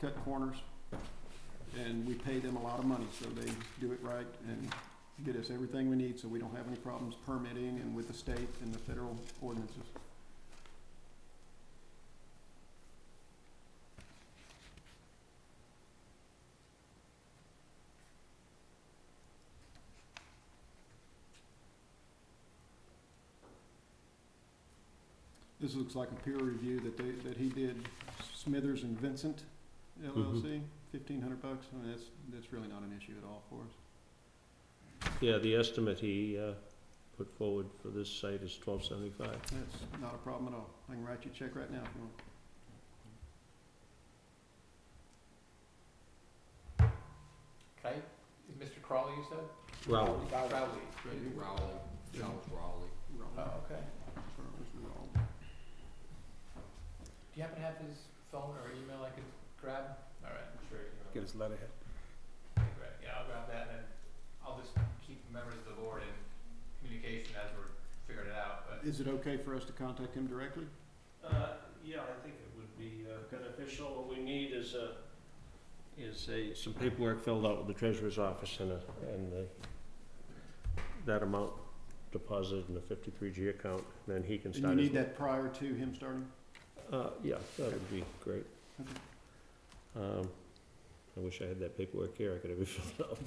cut corners. And we pay them a lot of money, so they do it right and get us everything we need, so we don't have any problems permitting and with the state and the federal ordinances. This looks like a peer review that they, that he did, Smithers and Vincent LLC, fifteen hundred bucks, I mean, that's, that's really not an issue at all for us. Yeah, the estimate he uh, put forward for this site is twelve seventy-five. That's not a problem at all. I can write you a check right now if you want. Okay, Mr. Crawley, you said? Well, Crowley. Rowley, Charles Oh, Rowley. Wrong. okay. Charles Wrong. Do you happen to have his phone or email I could grab? All right, I'm sure you Get his letterhead. can. Yeah, I'll grab that and then I'll just keep members of the board in communication as we're figuring it out, but. Is it okay for us to contact him directly? Uh, yeah, I think it would be uh, beneficial. What we need is a, is a, some paperwork filled out with the treasurer's office and a, and the, that amount deposited in the fifty-three G account, then he can And start. you his- need that prior to him starting? Uh, yeah, that would be great. Okay. Um, I wish I had that paperwork here. I could have it filled out.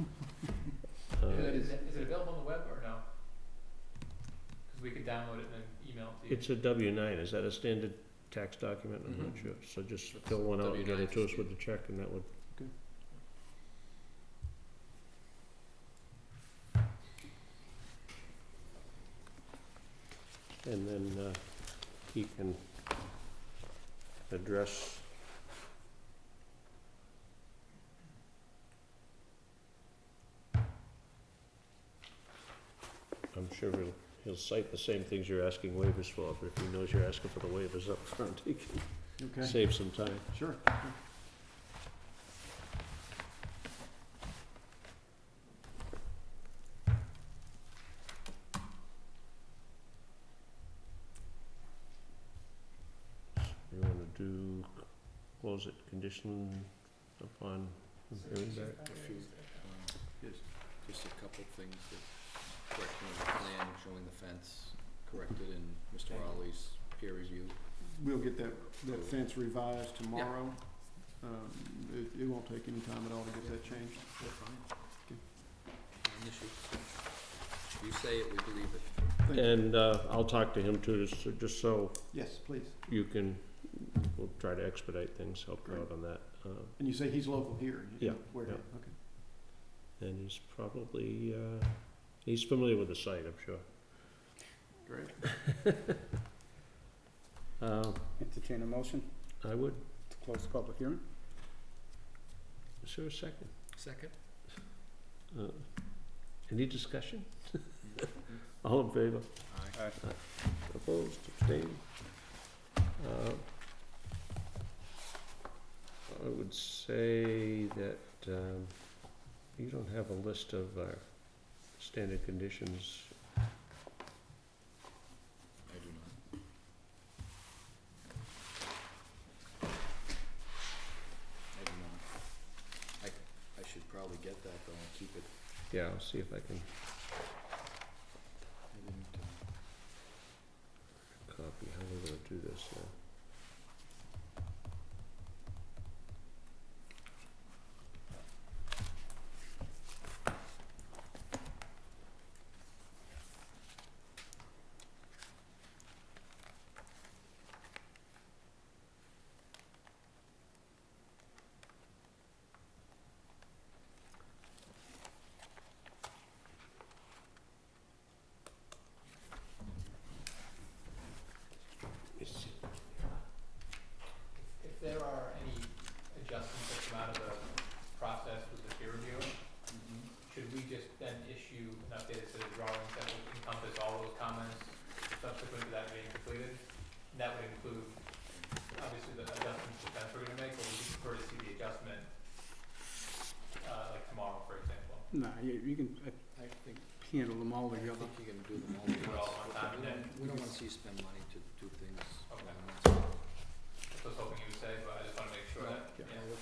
Uh, Is that it, is- is it- is it available on the web or no? Cause we could download it and then email it to you. It's a W nine, is that a standard tax document? I'm not Mhm. sure, so just fill one out and get it to us with the check and that would. Okay. And then, uh, he can address. I'm sure he'll He'll cite the same things you're asking waivers for, but if he knows you're asking for the waivers up front, he can Okay, save some time. sure. You wanna do, close it condition upon hearing back? Yes. Um, Just a couple things that correction of the plan, showing the fence corrected in Mr. Rowley's peer review. We'll get that, that fence revised tomorrow. Um, it, it won't take any time at all to get that changed. Not an issue. You say it, we believe it. Thank you. And, uh, I'll talk to him too, just, so- just so Yes, please. you can, we'll try to expedite things, help you out on that. Uh, And you say he's local here? you Yeah, know, Where, yeah. okay. and he's probably, uh, he's familiar with the site, I'm sure. Great. Uh, Entertain a motion I would, to close the public hearing. is there a second? Second? Uh, Any discussion? All in favor? Aye. Opposed, abstained? Uh, I would say that um, you don't have a list of our standard conditions. I do not. I do not. I, I should probably get that though, and keep it. Yeah, I'll see if I can I didn't, uh, copy, how we're gonna do this uh? now. If there are any adjustments that come out of the process with the peer review, Mm-hmm. should we just then issue an updated set of drawings that would encompass all those comments subsequent to that being completed? And that would include, obviously, the adjustments to the fence we're gonna make, but we just prefer to see the adjustment, uh, like tomorrow, for example. Nah, you, you can uh, I think handle them all I together. think you can do them all Do it all at one time, We and don't, then- we don't wanna see you spend money to do things. all Okay. at once. That's what I was hoping you would say, but